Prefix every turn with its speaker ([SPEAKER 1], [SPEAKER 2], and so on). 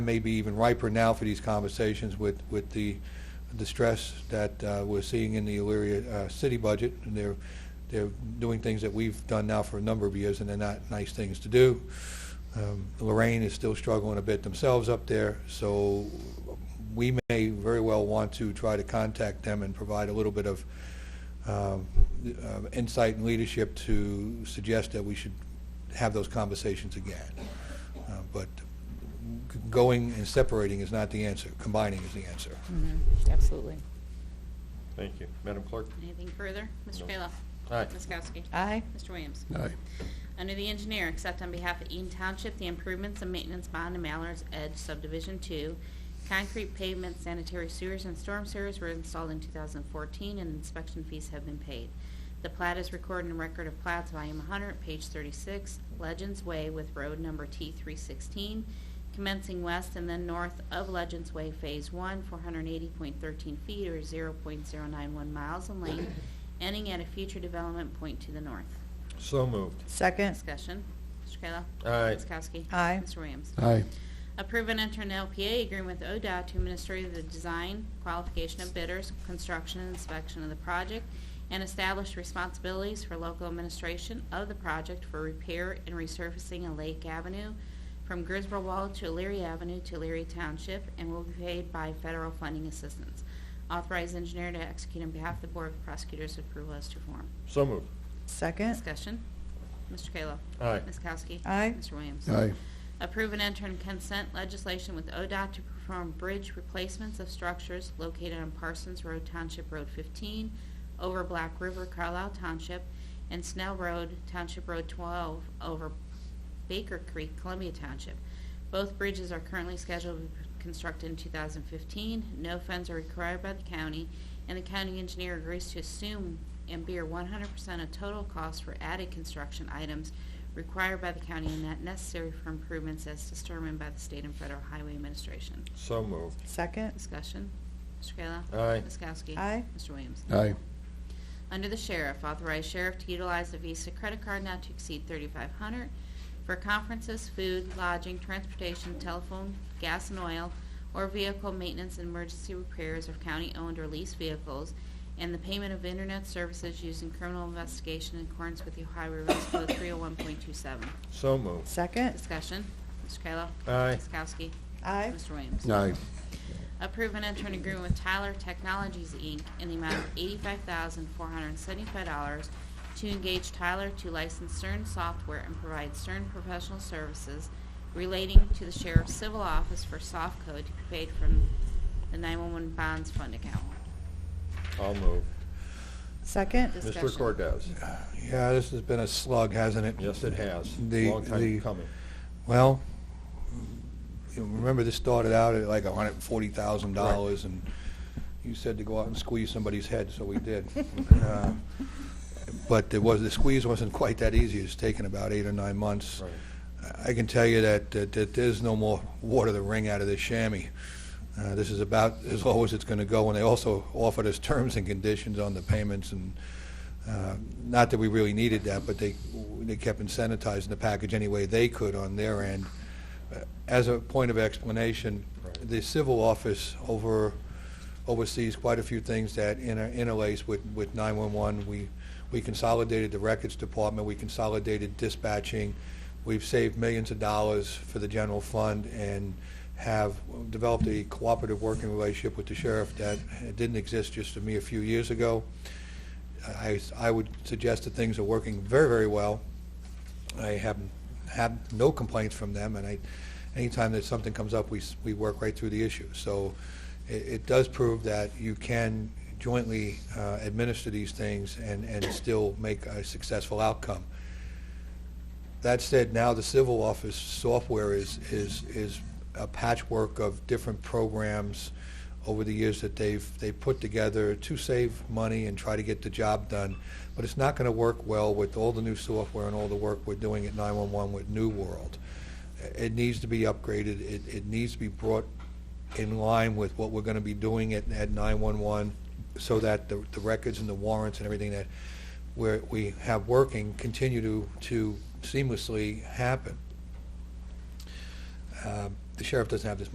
[SPEAKER 1] maybe even riper now for these conversations with, with the, the stress that uh, we're seeing in the Elyria uh, city budget. And they're, they're doing things that we've done now for a number of years, and they're not nice things to do. Um, Lorraine is still struggling a bit themselves up there, so we may very well want to try to contact them and provide a little bit of um, uh, insight and leadership to suggest that we should have those conversations again. Uh, But g- going and separating is not the answer, combining is the answer.
[SPEAKER 2] Mm-hmm.
[SPEAKER 3] Absolutely.
[SPEAKER 4] Thank you. Madam Clerk?
[SPEAKER 2] Anything further? Mr.
[SPEAKER 4] No.
[SPEAKER 2] Kayla?
[SPEAKER 4] Aye.
[SPEAKER 2] Ms. Kowski?
[SPEAKER 3] Aye.
[SPEAKER 2] Mr. Williams?
[SPEAKER 5] Aye.
[SPEAKER 2] Under the engineer, accept on behalf of Eaton Township the improvements and maintenance bond in Mallard's Edge Subdivision 2. Concrete pavement, sanitary sewers, and storm sewers were installed in 2014, and inspection fees have been paid. The plat is recorded in Record of Plats, Volume 100, page 36, Legends Way with road number T316, commencing west and then north of Legends Way Phase 1, 480.13 feet or 0.091 miles in length, ending at a future development point to the north.
[SPEAKER 4] So moved.
[SPEAKER 3] Second.
[SPEAKER 2] Discussion. Mr. Kayla?
[SPEAKER 4] Aye.
[SPEAKER 2] Ms. Kowski?
[SPEAKER 3] Aye.
[SPEAKER 2] Mr. Williams?
[SPEAKER 5] Aye.
[SPEAKER 2] Approve and enter an LPA agreement with ODOT to administer the design, qualification of bidders, construction and inspection of the project, and establish responsibilities for local administration of the project for repair and resurfacing of Lake Avenue from Griswold Wall to Leary Avenue to Leary Township, and will be paid by federal funding assistance. Authorize engineer to execute on behalf of the Board of Prosecutors' approval as to form.
[SPEAKER 4] So moved.
[SPEAKER 3] Second.
[SPEAKER 2] Discussion. Mr. Kayla?
[SPEAKER 4] Aye.
[SPEAKER 2] Ms. Kowski?
[SPEAKER 3] Aye.
[SPEAKER 2] Mr. Williams?
[SPEAKER 5] Aye.
[SPEAKER 2] Approve and enter in consent legislation with ODOT to perform bridge replacements of structures located on Parsons Road Township Road 15, over Black River Carlisle Township, and Snell Road Township Road 12, over Baker Creek Columbia Township. Both bridges are currently scheduled to be constructed in 2015. No funds are required by the county, and the county engineer agrees to assume and bear 100% of total cost for added construction items required by the county and not necessary for improvements as determined by the state and federal highway administration.
[SPEAKER 4] So moved.
[SPEAKER 3] Second.
[SPEAKER 2] Discussion. Mr. Kayla?
[SPEAKER 4] Aye.
[SPEAKER 2] Ms. Kowski?
[SPEAKER 3] Aye.
[SPEAKER 2] Mr. Williams?
[SPEAKER 5] Aye.
[SPEAKER 2] Under the Sheriff, authorize Sheriff to utilize the Visa credit card not to exceed 3,500 for conferences, food, lodging, transportation, telephone, gas and oil, or vehicle maintenance and emergency repairs of county-owned or leased vehicles, and the payment of internet services used in criminal investigation in accordance with the Ohio Revised Code 301.27.
[SPEAKER 4] So moved.
[SPEAKER 3] Second.
[SPEAKER 2] Discussion. Mr. Kayla?
[SPEAKER 4] Aye.
[SPEAKER 2] Ms. Kowski?
[SPEAKER 3] Aye.
[SPEAKER 2] Mr. Williams?
[SPEAKER 5] Aye.
[SPEAKER 2] Approve and enter an agreement with Tyler Technologies, Inc. in the amount of $85,475 to engage Tyler to license CERN software and provide CERN professional services relating to the Sheriff's Civil Office for soft code to be paid from the 911 Bonds Fund account.
[SPEAKER 4] I'll move.
[SPEAKER 3] Second.
[SPEAKER 4] Mr.
[SPEAKER 2] Discussion.
[SPEAKER 4] Cordez?
[SPEAKER 1] Yeah, this has been a slug, hasn't it?
[SPEAKER 4] Yes, it has.
[SPEAKER 1] The-
[SPEAKER 4] Long
[SPEAKER 1] the-
[SPEAKER 4] time coming.
[SPEAKER 1] Well, you remember this started out at like hundred and forty thousand dollars, and you said to go out and squeeze somebody's head, so we did. Uh, But it was, the squeeze wasn't quite that easy, it's taken about eight or nine months.
[SPEAKER 4] Right.
[SPEAKER 1] I can tell you that, that that there's no more water to wring out of this chamois. Uh, This is about as low as it's going to go, and they also offered us terms and conditions on the payments, and uh, not that we really needed that, but they, they kept incentivizing the package any way they could on their end. Uh, As a point of explanation,
[SPEAKER 4] Right.
[SPEAKER 1] the civil office over, oversees quite a few things that inter- interlace with, with 911. We, we consolidated the records department, we consolidated dispatching, we've saved millions of dollars for the general fund, and have developed a cooperative working relationship with the sheriff that didn't exist just a mere few years ago. I, I would suggest that things are working very, very well. I have had no complaints from them, and I, anytime that something comes up, we, s- we work right through the issue. So it, it does prove that you can jointly uh, administer these things and, and still make a successful outcome. That said, now the civil office software is, is, is a patchwork of different programs over the years that they've, they've put together to save money and try to get the job done. But it's not going to work well with all the new software and all the work we're doing at 911 with New World. It needs to be upgraded. It, it needs to be brought in line with what we're going to be doing at, at 911 so that the, the records and the warrants and everything that we're, we have working continue to, to seamlessly happen. Um, Uh, The sheriff doesn't have this